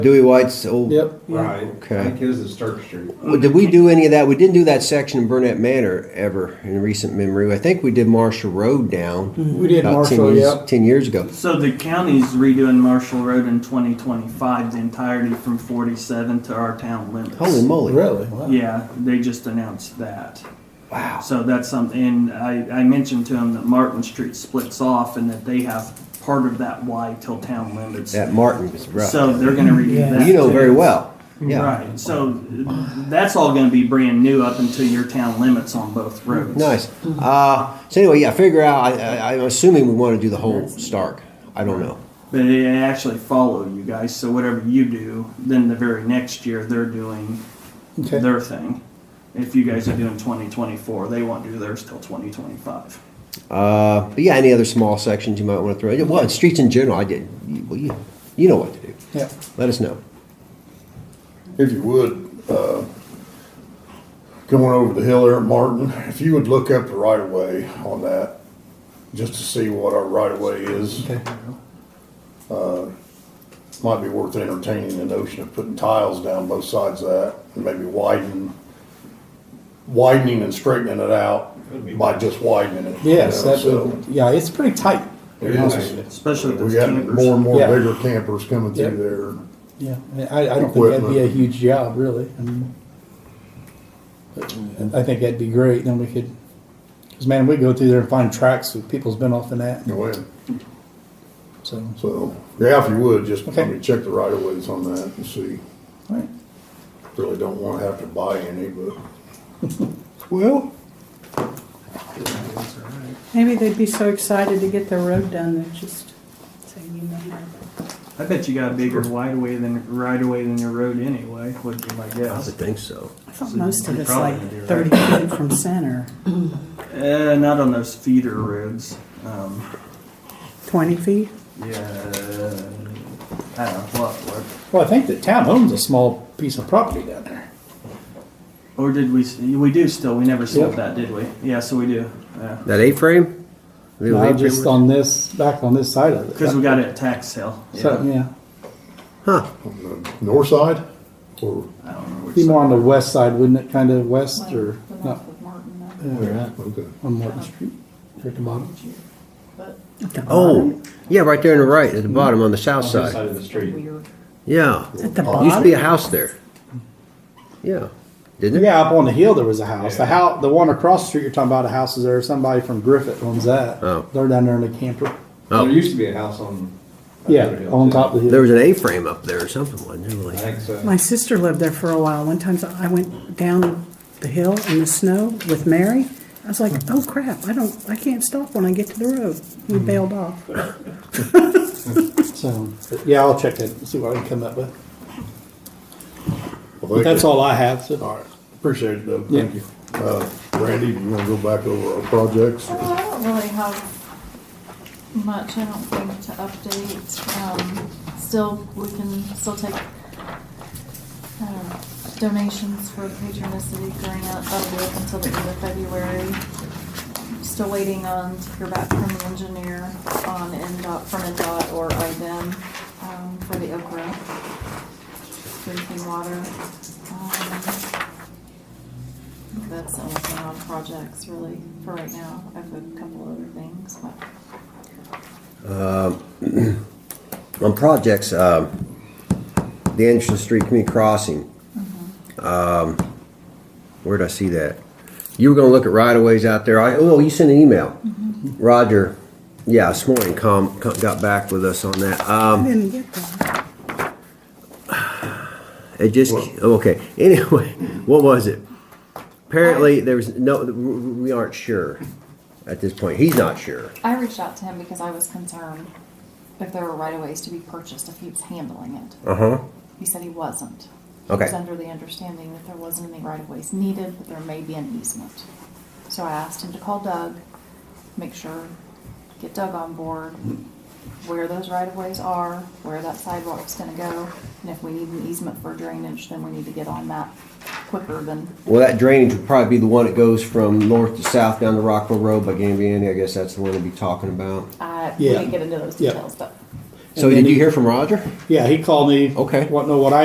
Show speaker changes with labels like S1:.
S1: Dewey White's old.
S2: Yep.
S3: Right.
S1: Okay.
S3: I think his is Turk Street.
S1: Well, Did we do any of that? We didn't do that section in Burnett Manor ever in recent memory. I think we did Marshall Road down
S2: Mm-hmm. We did
S1: about ten
S2: Marshall,
S1: years,
S2: yep.
S1: ten years ago.
S4: So the county's redoing Marshall Road in 2025, the entirety from 47 to our town limits.
S1: Holy moly!
S2: Really? Wow.
S4: Yeah, they just announced that.
S1: Wow.
S4: So that's something, and I, I mentioned to him that Martin Street splits off and that they have part of that Y till town limits.
S1: That Martin was rough.
S4: So they're gonna redo
S2: Yeah.
S4: that.
S1: you know
S4: too.
S1: very well. Yeah.
S4: Right, so that's all gonna be brand new up until your town limits on both roads.
S1: Nice.
S2: Mm-hmm.
S1: Uh, so anyway, yeah. Figure out. I, I, I'm assuming we want to do the whole Stark. I don't know.
S4: But they actually follow you guys, so whatever you do, then the very next year, they're doing
S2: Okay.
S4: their thing. If you guys are doing twenty twenty-four, they won't do theirs till twenty twenty-five.
S1: Uh, but yeah, any other small sections you might want to throw? in? Well, and streets in general. I did. you- Well, you, you know what to do.
S2: Yeah.
S1: Let us know.
S5: If you would, uh, going over the hill there at Martin, if you would look up the right of way on that, just to see what our right of way is. uh,
S2: Okay.
S5: Might be worth entertaining the notion of putting tiles down both sides of that and maybe widen, widening and straightening it out by just widening it. you
S2: Yes,
S5: know,
S2: that
S5: so.
S2: would, yeah, it's pretty tight.
S5: It is.
S4: Especially
S5: We
S4: those
S5: got more and
S4: campers.
S5: more
S2: Yeah.
S5: bigger campers coming
S2: Yep.
S5: through there.
S2: Yeah, I, I don't think that'd be a
S5: Equipment.
S2: huge job, really. I mean, I think that'd be great, then we could, cause man, we go through there and find tracks that people's been off in that,
S5: Oh, yeah.
S2: so,
S5: So, yeah, if you would, just, I
S2: Okay.
S5: mean, check the right of ways on that and see.
S2: all right.
S5: Really don't wanna have to buy any, but.
S1: Well,
S6: Maybe they'd be so excited to get their road done, they'd just say, you know.
S4: I bet you got a bigger wide away than, right away than your road anyway, would be my
S1: I would
S4: guess.
S1: think so.
S6: I thought most of
S4: You're
S6: it's
S4: probably
S6: like
S4: gonna be right.
S6: thirty feet from center,
S4: Uh, not on those feeder roads, um,
S6: twenty feet.
S4: yeah, I don't know, what, what.
S2: Well, I think the town owns a small piece of property down there.
S4: Or did we, s- we do still, we never sold
S2: Yeah.
S4: that, did we? Yeah, so we do, yeah.
S1: That A-frame.
S2: No, just on this, back on this side of it.
S4: Cause we got it at tax sale.
S2: So, yeah,
S5: on the north side or
S4: I don't know which
S2: be
S4: side.
S2: more on the west side, wouldn't it, kind of west or,
S7: Like, when I
S2: not,
S7: was with Martin, that
S5: okay.
S2: on Martin Street, or at the bottom?
S7: was you, but
S6: At the bottom.
S1: Oh, yeah, right there on the right, at the bottom on the south
S3: On
S1: side.
S3: this side of the street.
S7: weird.
S1: Yeah.
S6: At the
S1: Used to be a
S6: bottom?
S1: house there. Yeah. Didn't it?
S2: Yeah, up on the hill there was a house. The house, the one across the street you're talking about, a house is there. Somebody from Griffith owns that.
S1: Oh.
S2: They're down there in the camper.
S1: Oh.
S3: There used to be a house on.
S2: Yeah,
S3: Another hill,
S2: on
S3: too.
S2: top of the
S1: There
S2: hill.
S1: was an A-frame up there or something, wasn't there?
S3: I
S1: really?
S3: think so.
S6: My sister lived there for a while. One time I went down the hill in the snow with Mary. I was like, oh crap, I don't, I can't stop when I get to the road. We
S4: Mm-hmm.
S6: bailed off.
S2: So, but yeah, I'll check it and see what I can come up with.
S5: Well,
S2: But
S5: thank
S2: that's
S5: you.
S2: all I have. So.
S5: All right, appreciate it, Doug,
S2: Yeah.
S5: thank you. Uh, Randy, you wanna go back over our projects?
S7: Well, I don't really have much, I don't think, to update. Um, still, we can still take, um, donations for patronicity grant up with until the end of February. Still waiting on to hear back from the engineer on NDOT, from NDOT or IDEM, um, for the Oak Grove drinking water. Um, that's the only thing on projects really for right now. I have a couple other things, but
S1: On projects, um, the Anderson Street Community Crossing. Um, Where'd I see that? You were gonna look at right-of-ways out there. I, oh, you sent an email. Roger, yeah, this morning, com, com- got back with us on that. Um,
S6: I didn't get that.
S1: It just okay. Anyway, what was it? Apparently, there was no. We aren't sure at this point. He's not sure.
S7: I reached out to him because I was concerned if there were right of ways to be purchased if he was handling it.
S1: Uh huh.
S7: He said he wasn't. He was
S1: Okay.
S7: under the understanding that there wasn't any right of ways needed, but there may be an easement. So I asked him to call Doug, make sure, get Doug on board, where those right of ways are, where that sidewalk's gonna go, and if we need an easement for drainage, then we need to get on that quicker than
S1: Well, that drainage would probably be the one that goes from north to south down the Rockwell Road by Gambiani. I guess that's the one to be talking about.
S7: I
S2: Yeah.
S7: we Uh, didn't get into those
S2: Yeah.
S7: details, but
S1: So
S2: And then
S1: did you
S2: he-
S1: hear from Roger?
S2: Yeah, he called me.
S1: Okay.
S2: Want to know what I